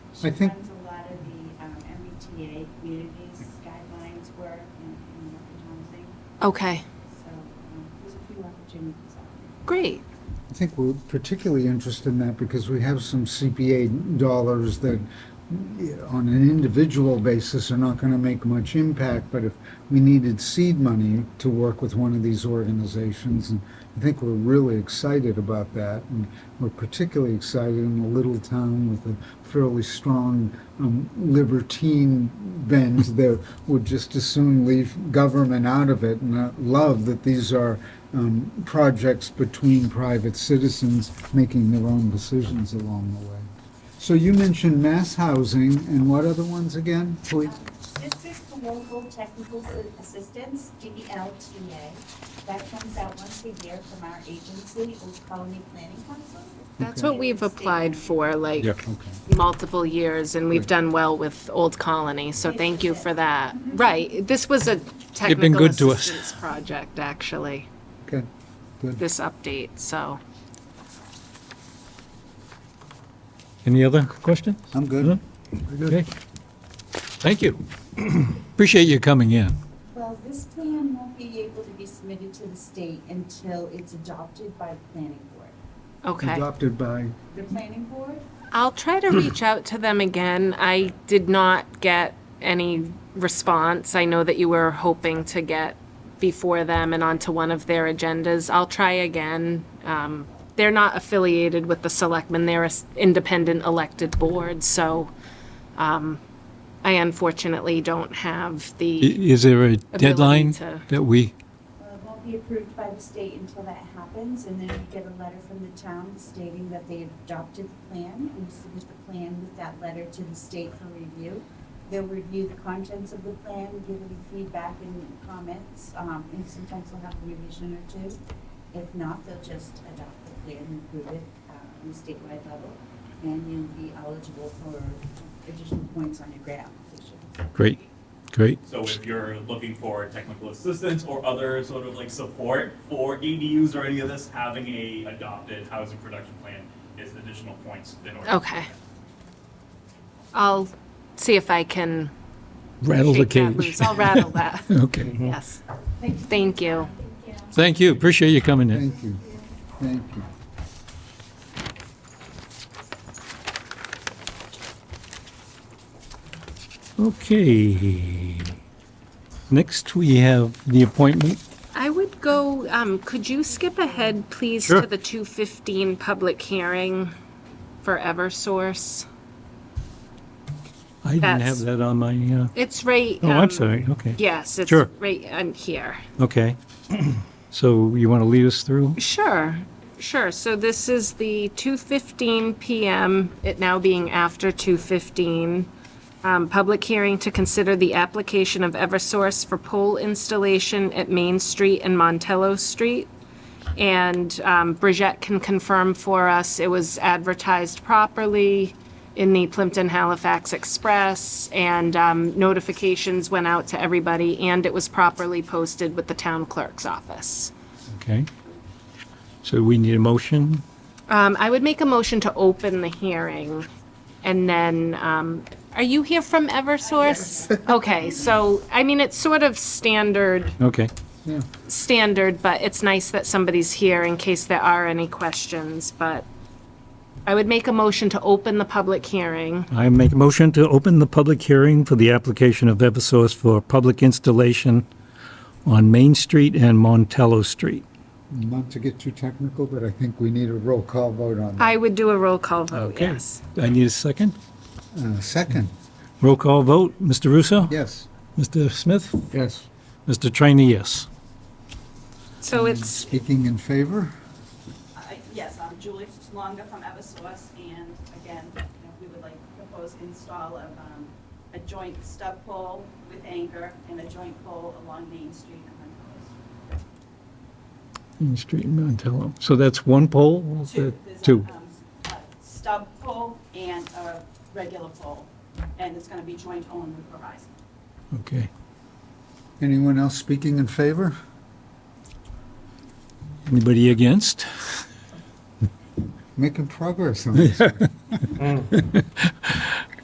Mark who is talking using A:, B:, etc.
A: She
B: I think-
A: runs a lot of the um, MBTA communities guidelines work and and working
C: Okay,
A: housing. So um, there's a few opportunities out there.
C: great.
B: I think we're particularly interested in that because we have some CPA dollars that, eh, on an individual basis, are not going to make much impact, but if we needed seed money to work with one of these organizations, and I think we're really excited about that, and we're particularly excited in a little town with a fairly strong um, libertine bend that would just as soon leave government out of it, and I love that these are um, projects between private citizens making their own decisions along the way. So you mentioned mass housing and what other ones again? Please.
A: Um, District for Local Technical Assistance, DLTA. That comes out once a year from our agency, Old Colony Planning Council.
C: That's
B: Okay.
C: what we've applied for, like,
D: Yeah.
B: Okay.
C: multiple years, and we've done well with Old Colony, so thank you for that. Right, this was a
D: been
C: technical
D: good to us.
C: assistance project, actually,
B: Okay. Good.
C: this update, so.
D: Any other questions?
B: I'm good.
D: Okay. Thank you. Appreciate you coming in.
A: Well, this plan won't be able to be submitted to the state until it's adopted by the planning board.
C: Okay.
B: Adopted by,
A: The planning board
C: I'll try to reach out to them again. I did not get any response. I know that you were hoping to get before them and onto one of their agendas. I'll try again. Um, they're not affiliated with the selectmen, they're an independent elected board, so um, I unfortunately don't have
D: I-
C: the,
D: Is there a deadline
C: to-
D: that we,
A: Well, it uh, won't be approved by the state until that happens, and then we get a letter from the town stating that they adopted the plan, and we submit the plan with that letter to the state for review. They'll review the contents of the plan, give any feedback and comments, um, and sometimes they'll have a revision or two. If not, they'll just adopt the plan and approve it, uh, on a statewide level, and you'll be eligible for additional points on your grant application.
D: great, great.
E: So if you're looking for technical assistance or other sort of like support for ADUs or any of this, having a adopted housing production plan is additional points in order. to-
C: okay. I'll see if I can
D: Rattle the
C: shake that
D: cage.
C: loose. I'll rattle that,
D: Okay.
C: yes. Thank you.
D: Thank you. Appreciate you coming in.
B: thank you. Thank you.
D: Okay. Next, we have the appointment.
C: I would go, um, could you skip ahead, please,
D: Sure.
C: to the two fifteen public hearing for Eversource?
D: I didn't have
C: That's-
D: that on my, uh,
C: It's right.
D: oh, I'm
C: um,
D: sorry. Okay.
C: Yes, it's
D: Sure.
C: right on here.
D: Okay. So you want to lead us through?
C: Sure, sure. So this is the 2:15 PM, it now being after 2:15, um, public hearing to consider the application of Eversource for pole installation at Main Street and Montello Street. And um, Bridgette can confirm for us, it was advertised properly in the Plimpton Halifax Express, and um, notifications went out to everybody, and it was properly posted with the town clerk's office.
D: Okay. So we need a motion.
C: Um, I would make a motion to open the hearing, and then, um, are you here from Eversource? Okay, so, I mean, it's sort of standard,
D: Okay.
B: Yeah.
C: standard, but it's nice that somebody's here in case there are any questions, but I would make a motion to open the public hearing.
D: I make a motion to open the public hearing for the application of Eversource for public installation on Main Street and Montello Street.
B: Not to get too technical, but I think we need a roll call vote on that.
C: I would do a roll call vote, yes.
D: I need a second.
B: Uh, Second,
D: Roll call vote. Mr. Russo?
B: yes.
D: Mr. Smith?
B: Yes.
D: Mr. Trainee, yes.
C: So it's,
B: Speaking in favor?
F: I- Yes, I'm Julie Longa from Eversource, and again, you know, we would like to propose install of um, a joint stub pole with anchor and a joint pole along Main Street and Montello Street.
D: Main Street and Montello. So that's one poll?
F: Two,
D: Uh,
F: there's a,
D: Two.
F: um, a stub pole and a regular pole, and it's going to be joint owned with Verizon.
D: Okay.
B: Anyone else speaking in favor?
D: Anybody against?
B: Making progress on this.